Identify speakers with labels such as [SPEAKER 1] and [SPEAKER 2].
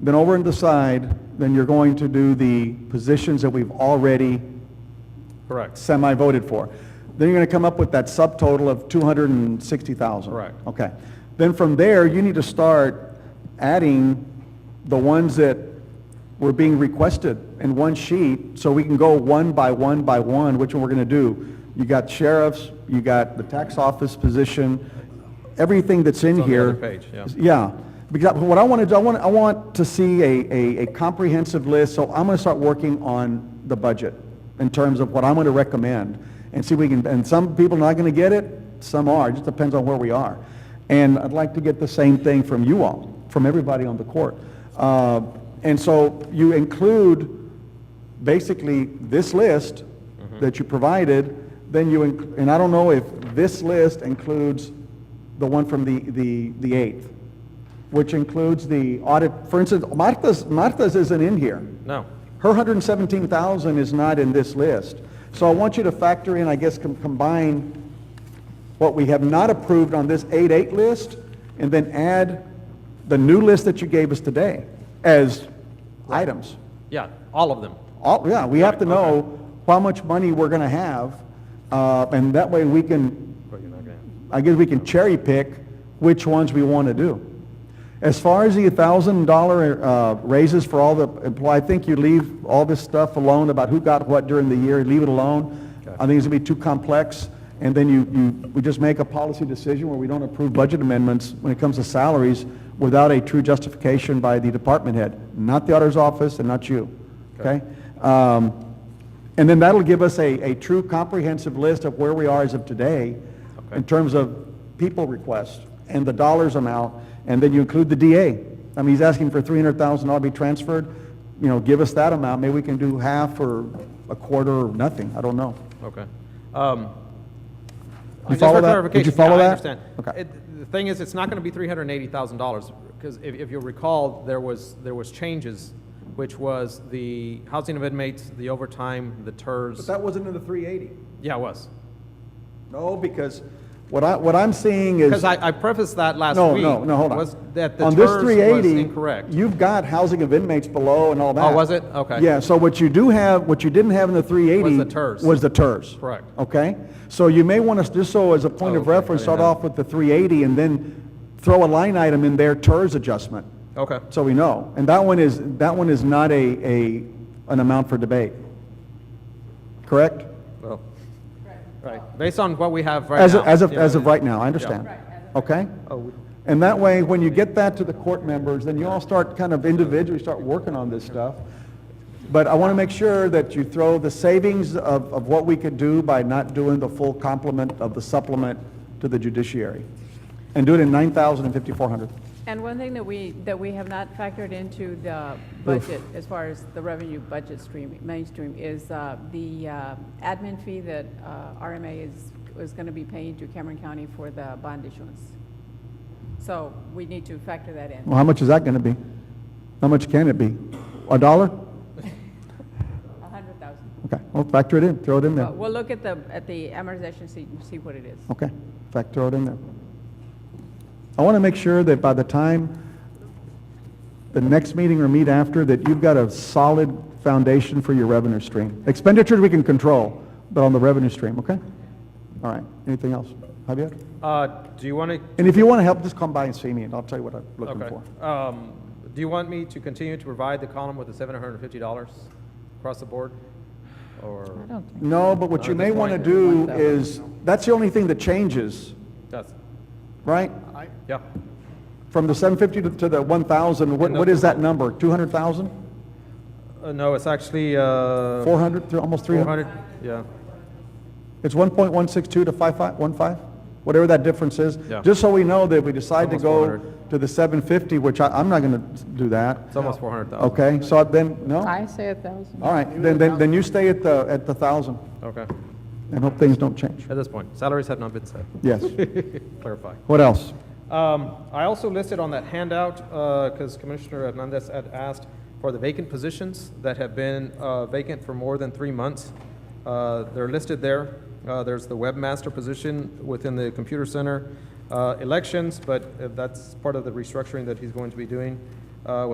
[SPEAKER 1] then over and decide, then you're going to do the positions that we've already
[SPEAKER 2] Correct.
[SPEAKER 1] semi-voted for. Then you're going to come up with that subtotal of 260,000.
[SPEAKER 2] Correct.
[SPEAKER 1] Okay. Then from there, you need to start adding the ones that were being requested in one sheet, so we can go one by one by one, which one we're going to do. You got sheriffs, you got the tax office position, everything that's in
[SPEAKER 2] It's on the
[SPEAKER 1] here.
[SPEAKER 2] other page, yeah.
[SPEAKER 1] Yeah, because what I want to do, I want, I want to see a, a, a comprehensive list, so I'm going to start working on the budget in terms of what I'm going to recommend, and see if we can, and some people are not going to get it, some are, it just depends on where we are. And I'd like to get the same thing from you all, from everybody on the court. Uh, and so you include basically this list that you provided, then you, inc- and I don't know if this list includes the one from the, the, the 8th, which includes the audit, for instance, Martha's, Martha's isn't in here.
[SPEAKER 2] No.
[SPEAKER 1] Her 117,000 is not in this list. So I want you to factor in, I guess, com- combine what we have not approved on this 8-8 list, and then add the new list that you gave us today as items.
[SPEAKER 2] Yeah, all of them.
[SPEAKER 1] All, yeah, we have to
[SPEAKER 2] Right, okay.
[SPEAKER 1] know how much money we're gonna have, uh, and that way we can,
[SPEAKER 2] But you're not gonna-
[SPEAKER 1] I guess we can cherry pick which ones we wanna do. As far as the thousand dollar, uh, raises for all the employees, I think you leave all this stuff alone about who got what during the year, leave it alone.
[SPEAKER 2] Okay.
[SPEAKER 1] I think it's gonna be too complex, and then you, you, we just make a policy decision where we don't approve budget amendments when it comes to salaries without a true justification by the department head, not the auditor's office and not you, okay?
[SPEAKER 2] Okay.
[SPEAKER 1] Um, And then that'll give us a, a true comprehensive list of where we are as of today
[SPEAKER 2] Okay.
[SPEAKER 1] in terms of people requests and the dollars amount, and then you include the DA. I mean, he's asking for three hundred thousand dollars to be transferred, you know, give us that amount, maybe we can do half or a quarter or nothing, I don't know.
[SPEAKER 2] Okay. Um,
[SPEAKER 1] You
[SPEAKER 2] Just
[SPEAKER 1] follow
[SPEAKER 2] for
[SPEAKER 1] that? Did you
[SPEAKER 2] clarification, yeah,
[SPEAKER 1] follow that?
[SPEAKER 2] I understand.
[SPEAKER 1] Okay.
[SPEAKER 2] It- The thing is, it's not going to be $380,000, because if, if you'll recall, there was, there was changes, which was the housing of inmates, the overtime, the TERS.
[SPEAKER 1] wasn't in the three eighty.
[SPEAKER 2] Yeah, it was.
[SPEAKER 1] No, because what I, what I'm seeing is.
[SPEAKER 2] Because I, I prefaced that last
[SPEAKER 1] No,
[SPEAKER 2] week.
[SPEAKER 1] no, no, hold on.
[SPEAKER 2] Was that the
[SPEAKER 1] On this
[SPEAKER 2] TERS was
[SPEAKER 1] 380,
[SPEAKER 2] incorrect. Oh,
[SPEAKER 1] You've got housing of inmates below and all that.
[SPEAKER 2] was it? Okay.
[SPEAKER 1] Yeah, so what you do have, what you didn't have in the 380.
[SPEAKER 2] Was the TERS.
[SPEAKER 1] Was the TERS.
[SPEAKER 2] Correct.
[SPEAKER 1] Okay? So you may want to, just so as a point
[SPEAKER 2] Oh,
[SPEAKER 1] of
[SPEAKER 2] okay, I
[SPEAKER 1] reference, start
[SPEAKER 2] didn't know.
[SPEAKER 1] off with the 380 and then throw a line item in there, TERS adjustment,
[SPEAKER 2] Okay,
[SPEAKER 1] so we know. And that one is, that one is not a, a, an amount for debate. Correct?
[SPEAKER 2] well, right, based on what we have right
[SPEAKER 1] As,
[SPEAKER 2] now.
[SPEAKER 1] of- as of,
[SPEAKER 2] yeah.
[SPEAKER 1] as of right now, I understand.
[SPEAKER 2] Right,
[SPEAKER 1] Okay?
[SPEAKER 2] Oh, we-
[SPEAKER 1] And that way, when you get that to the court members, then you all start kind of individually start working on this stuff. But I want to make sure that you throw the savings of, of what we could do by not doing the full complement of the supplement to the judiciary. And do it in nine thousand and fifty-four hundred.
[SPEAKER 3] And one thing that we, that we have not factored into the budget, as far as the revenue budget stream, mainstream, is uh, the uh, admin fee that uh, RMA is, is going to be paying to Cameron County for the bond issuance. So we need to factor that in.
[SPEAKER 1] Well, how much is that going to be? How much can it be? A dollar?
[SPEAKER 3] A hundred thousand.
[SPEAKER 1] Okay, well, factor it in, throw it in there.
[SPEAKER 3] But we'll look at the, at the amortization sheet and see what it is.
[SPEAKER 1] Okay, in fact, throw it in there. I want to make sure that by the time the next meeting or meet after, that you've got a solid foundation for your revenue stream. Expenditures we can control, but on the revenue stream, okay? All right, anything else? Javier?
[SPEAKER 2] Uh, do you want to
[SPEAKER 1] And if you want to help, just come by and see me, and I'll tell you what I'm looking
[SPEAKER 2] Okay.
[SPEAKER 1] for.
[SPEAKER 2] Um, Do you want me to continue to provide the column with the seven hundred and fifty dollars across the board? Or,
[SPEAKER 1] No, but what you may want to do is, that's the only thing that changes,
[SPEAKER 2] that's,
[SPEAKER 1] right?
[SPEAKER 2] yeah,
[SPEAKER 1] From the 750 to- to the 1,000, what
[SPEAKER 2] And the-
[SPEAKER 1] what is that number? 200,000?
[SPEAKER 2] Uh, no, it's actually, uh.
[SPEAKER 1] 400, through almost 300?
[SPEAKER 2] 400, yeah,
[SPEAKER 1] It's 1.162 to 5515, whatever that difference is.
[SPEAKER 2] Yeah.
[SPEAKER 1] Just so we know that we decide to
[SPEAKER 2] Almost
[SPEAKER 1] go
[SPEAKER 2] 400.
[SPEAKER 1] to the 750, which I, I'm not going to do that.
[SPEAKER 2] it's almost four hundred thousand.
[SPEAKER 1] Okay, so then, no?
[SPEAKER 4] I say a thousand.
[SPEAKER 1] All right, then, then, then you stay at the, at the 1,000
[SPEAKER 2] Okay,
[SPEAKER 1] and hope things don't change.
[SPEAKER 2] at this point, salaries have not been set,
[SPEAKER 1] Yes.
[SPEAKER 2] clarify.
[SPEAKER 1] What else?
[SPEAKER 2] Um, I also listed on that handout, because Commissioner Hernandez had asked for the vacant positions that have been uh, vacant for more than three months. Uh, They're listed there. Uh, There's the webmaster position within the computer center, uh, elections, but uh, that's part of the restructuring that he's going to be doing uh,